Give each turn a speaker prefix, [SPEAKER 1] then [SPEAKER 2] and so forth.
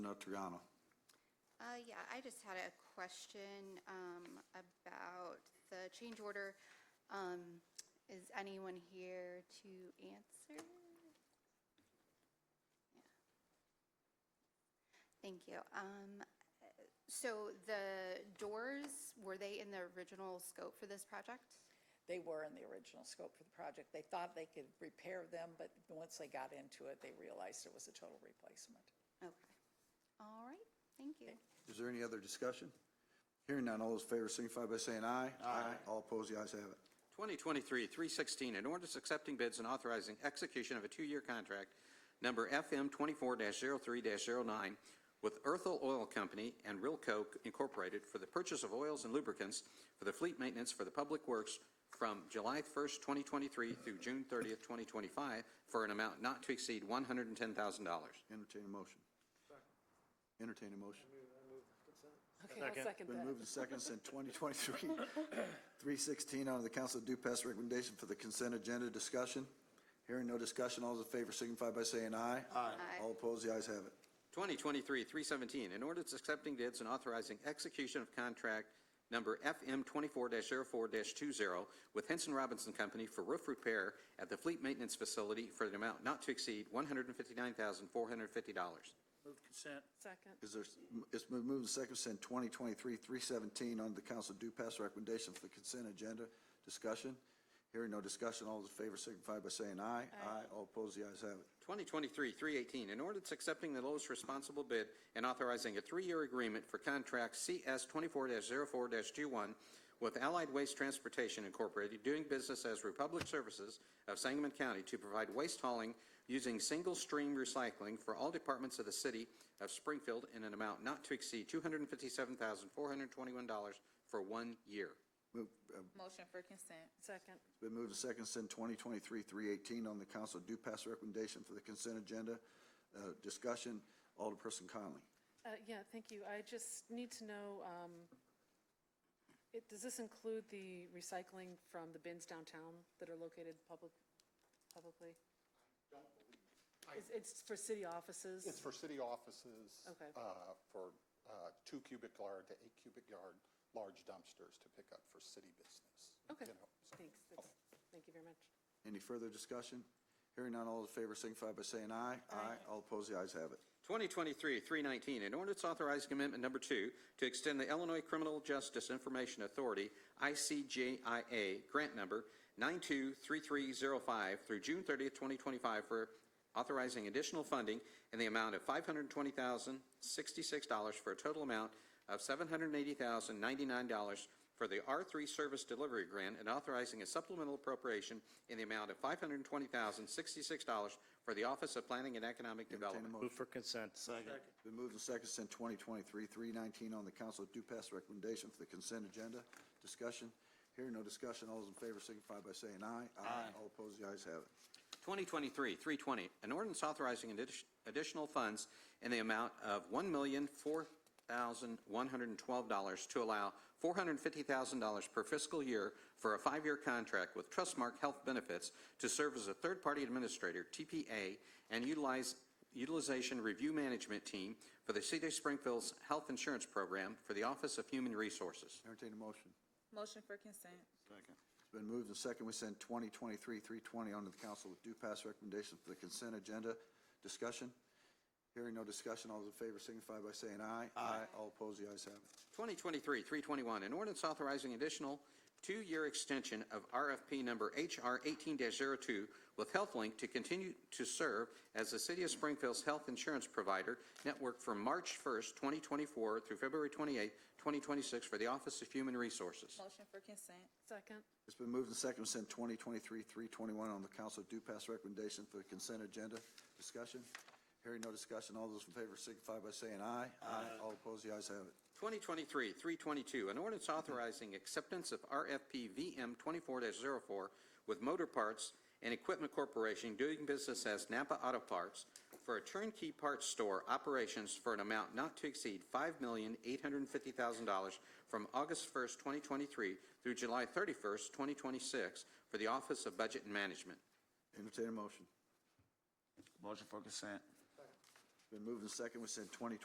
[SPEAKER 1] Commissioner Triano.
[SPEAKER 2] Uh, yeah, I just had a question, um, about the change order. Um, is anyone here to answer? Yeah. Thank you. Um, uh, so the doors, were they in the original scope for this project?
[SPEAKER 3] They were in the original scope for the project. They thought they could repair them, but once they got into it, they realized it was a total replacement.
[SPEAKER 2] Okay. All right, thank you.
[SPEAKER 1] Is there any other discussion? Hearing none, all those in favor signify by saying aye. Aye. All opposed, the ayes have it.
[SPEAKER 4] 2023-316, an ordinance accepting bids and authorizing execution of a two-year contract number FM 24-03-09 with Earthal Oil Company and Rilco Incorporated for the purchase of oils and lubricants for the fleet maintenance for the public works from July 1st, 2023 through June 30th, 2025, for an amount not to exceed $110,000.
[SPEAKER 1] Entertain a motion. Entertain a motion.
[SPEAKER 3] Okay, I'll second
[SPEAKER 1] Been moved and seconded since 2023, 316 under the Council of Due Pass recommendation for the consent agenda discussion. Hearing no discussion, all those in favor signify by saying aye.
[SPEAKER 2] Aye.
[SPEAKER 1] All opposed, the ayes have it.
[SPEAKER 4] 2023-317, an ordinance accepting bids and authorizing execution of contract number FM 24-04-20 with Henson Robinson Company for roof repair at the Fleet Maintenance Facility for an amount not to exceed $159,450.
[SPEAKER 5] Move consent.
[SPEAKER 3] Second.
[SPEAKER 1] Is there, it's been moved and seconded since 2023, 317 under the Council of Due Pass recommendation for the consent agenda discussion. Hearing no discussion, all those in favor signify by saying aye. Aye. All opposed, the ayes have it.
[SPEAKER 4] 2023-318, an ordinance accepting the lowest responsible bid and authorizing a three-year agreement for contract CS 24-04-21 with Allied Waste Transportation Incorporated, doing business as Republic Services of Sangamon County to provide waste hauling using single-stream recycling for all departments of the city of Springfield in an amount not to exceed $257,421 for one year.
[SPEAKER 1] Move- uh,
[SPEAKER 6] Motion for consent.
[SPEAKER 3] Second.
[SPEAKER 1] It's been moved and seconded since 2023, 318 on the Council of Due Pass recommendation for the consent agenda uh, discussion. Alderperson Conley.
[SPEAKER 7] Uh, Yeah, thank you. I just need to know, um, it- does this include the recycling from the bins downtown that are located public, publicly? It's- It's for city offices?
[SPEAKER 8] It's for city offices.
[SPEAKER 7] Okay.
[SPEAKER 8] uh, For uh, two cubic yard to eight cubic yard large dumpsters to pick up for city business.
[SPEAKER 7] Okay,
[SPEAKER 8] you know, so.
[SPEAKER 7] thanks. That's- Thank you very much.
[SPEAKER 1] Any further discussion? Hearing none, all those in favor signify by saying aye. Aye. All opposed, the ayes have it.
[SPEAKER 4] 2023-319, an ordinance authorizing amendment number two to extend the Illinois Criminal Justice Information Authority, ICJIA, grant number 923305 through June 30th, 2025, for authorizing additional funding in the amount of $520,066 for a total amount of $780,099 for the R3 Service Delivery Grant and authorizing a supplemental appropriation in the amount of $520,066 for the Office of Planning and Economic Development.
[SPEAKER 1] Entertain a motion.
[SPEAKER 5] Move for consent. Second.
[SPEAKER 1] Been moved and seconded since 2023, 319 on the Council of Due Pass recommendation for the consent agenda. Discussion, hearing no discussion, all those in favor signify by saying aye. Aye. All opposed, the ayes have it.
[SPEAKER 4] 2023-320, an ordinance authorizing addi- additional funds in the amount of $1,004,112 to allow $450,000 per fiscal year for a five-year contract with Trustmark Health Benefits to serve as a third-party administrator, TPA, and utilize Utilization Review Management Team for the City of Springfield's Health Insurance Program for the Office of Human Resources.
[SPEAKER 1] Entertain a motion.
[SPEAKER 6] Motion for consent.
[SPEAKER 1] It's been moved and seconded, we send 2023, 320 on to the Council with Due Pass recommendation for the consent agenda. Discussion, hearing no discussion, all those in favor signify by saying aye. Aye. All opposed, the ayes have it.
[SPEAKER 4] 2023-321, an ordinance authorizing additional two-year extension of RFP number HR 18-02 with HealthLink to continue to serve as the City of Springfield's health insurance provider network from March 1st, 2024 through February 28th, 2026 for the Office of Human Resources.
[SPEAKER 6] Motion for consent.
[SPEAKER 7] Second,
[SPEAKER 1] It's been moved and seconded, send 2023, 321 on the council due pass recommendation for the consent agenda. Discussion? Hearing no discussion, all those in favor signify by saying aye. Aye. All opposed, the ayes have it.
[SPEAKER 4] 2023-322, an ordinance authorizing acceptance of RFP VM 24-04 with Motor Parts and Equipment Corporation doing business as Napa Auto Parts for a turnkey parts store operations for an amount not to exceed $5,850,000 from August 1st, 2023 through July 31st, 2026 for the Office of Budget and Management.
[SPEAKER 1] Entertain a motion.
[SPEAKER 5] Motion for consent.
[SPEAKER 1] Been moved and seconded, we send 2023,